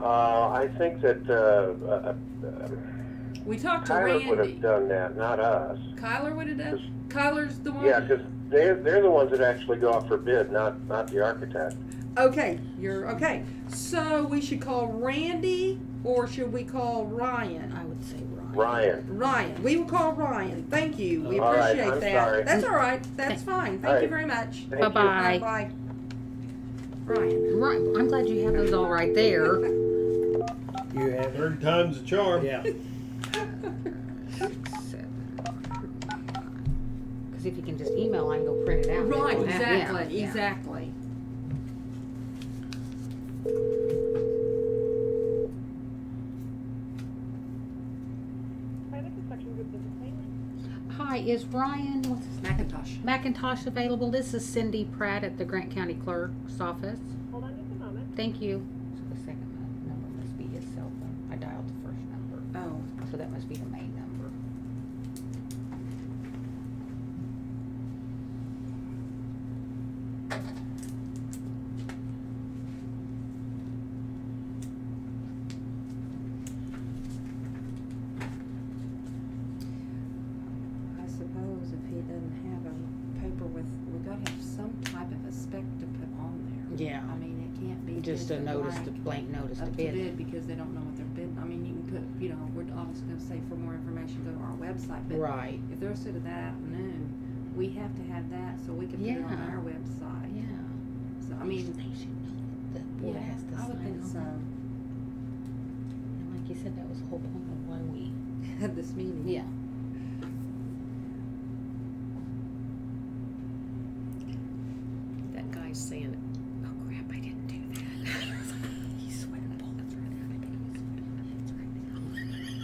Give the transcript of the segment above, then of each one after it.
Uh, I think that, uh, uh, We talked to Tyler would Randy. have done that, not us. Kyler would have done. Kyler's the one. Yeah, because they're, they're the ones that actually go out for bid, not, not the architect. Okay, you're okay. So we should call Randy or should we call Ryan? I would say Ryan. Ryan. Ryan. We will call Ryan. Thank you. We All right, appreciate I'm that. sorry. That's all right. That's fine. Thank All you right. very much. Thank you. Bye-bye. Bye. Bye. Ryan. Right, I'm glad you have those all right there. You have, Third time's a charm. yeah. Because if you can just email, I can go print it out. Right, Yeah, exactly, yeah. exactly. Private construction group, this is Caitlin. Hi, is Ryan what's his Macintosh. Macintosh available? This is Cindy Pratt at the Grant County Clerk's office. Hold on just a moment. Thank you. So the second number must be his cell phone. I dialed the first number, Oh, so that must be the main number. I suppose if he doesn't have a paper with, we gotta have some type of a spec to put on Yeah, there. I mean, it can't be. just a notice, the blank notice to Up to bid. bid because they don't know what they're bidding. I mean, you can put, you know, we're obviously gonna say for more information, go to our website, but Right. if they're sort of that afternoon, we have to have that so we can put it on Yeah. our website. Yeah. So, I mean, they should know that the board yeah, has to I would sign think on so. that. And like you said, that was the whole point of why we. This meeting. Yeah. That guy's saying, "Oh crap, I didn't do that." He's sweating bullets right now. I think he's sweating bullets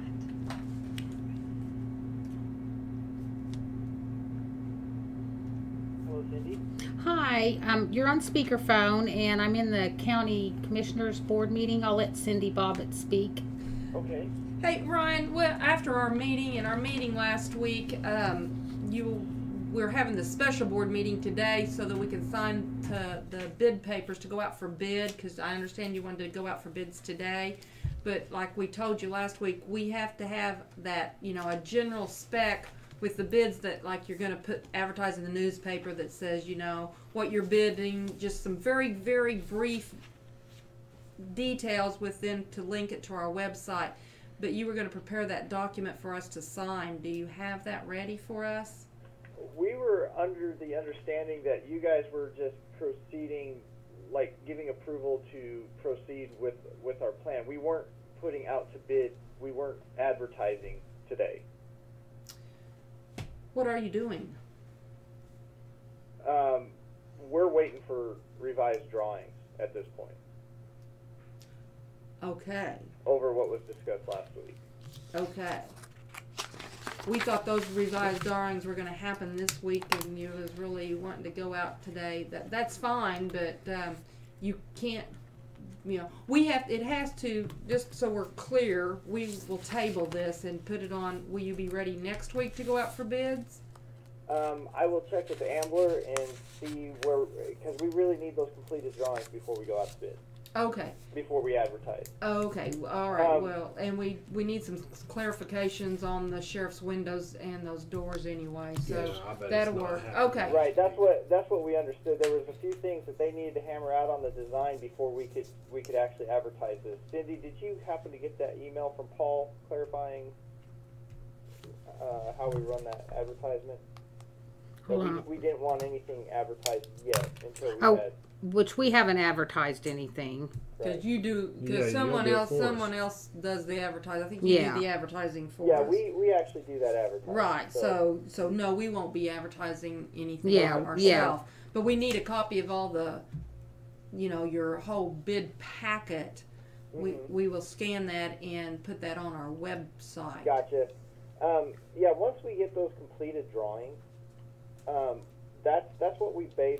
right Hello, Cindy. now. Hi, um, you're on speakerphone, and I'm in the county commissioners board meeting. I'll let Cindy Bobbitt speak. Okay. Hey, Ryan, well, after our meeting and our meeting last week, um, you, we're having the special board meeting today so that we can sign to the bid papers to go out for bid, cause I understand you wanted to go out for bids today. But like we told you last week, we have to have that, you know, a general spec with the bids that, like, you're gonna put, advertise in the newspaper that says, you know, what you're bidding, just some very, very brief details with them to link it to our website. But you were going to prepare that document for us to sign. Do you have that ready for us? we were under the understanding that you guys were just proceeding, like giving approval to proceed with with our plan. We weren't putting out to bid. We weren't advertising today. What are you doing? Um, we're waiting for revised drawings at this point Okay, over what was discussed last week. okay. We thought those revised drawings were going to happen this week, and you was really wanting to go out today. That that's fine, but um, you can't. You know, we have. It has to. Just so we're clear, we will table this and put it on. Will you be ready next week to go out for bids? Um, I will check with the Ambler and see where, because we really need those completed drawings before we go out to bid, Okay. before we advertise. Okay, w- all right, Um, well, and we, we need some clarifications on the sheriff's windows and those doors anyway, so Yeah, I bet it's that'll not work, happening. okay. Right, that's what that's what we understood. There was a few things that they needed to hammer out on the design before we could we could actually advertise this. Cindy, did you happen to get that email from Paul clarifying uh, how we run that advertisement? That Hold on. we, we didn't want anything advertised yet until we Oh. had. Which we haven't advertised anything. Cause you do, Yeah, you'll cause someone do it else, for us. someone else does the advertising, I think you Yeah. do the advertising for us. Yeah, we, we actually do that advertising. Right, so, so no, we won't be advertising anything Yeah, yeah. ourselves, but we need a copy of all the, you know, your whole bid packet. We, Mm-hmm. Mhm. we will scan that and put that on our website. Gotcha. Um, yeah, once we get those completed drawings, um, that's that's what we base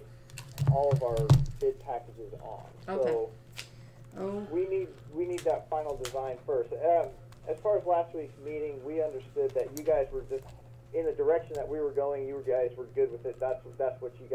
all of our bid packages on. Okay. So Oh, we need we need that final design first. Um, as far as last week's meeting, we understood that you guys were just in the direction that we were going. You guys were good with it. That's that's what you guys.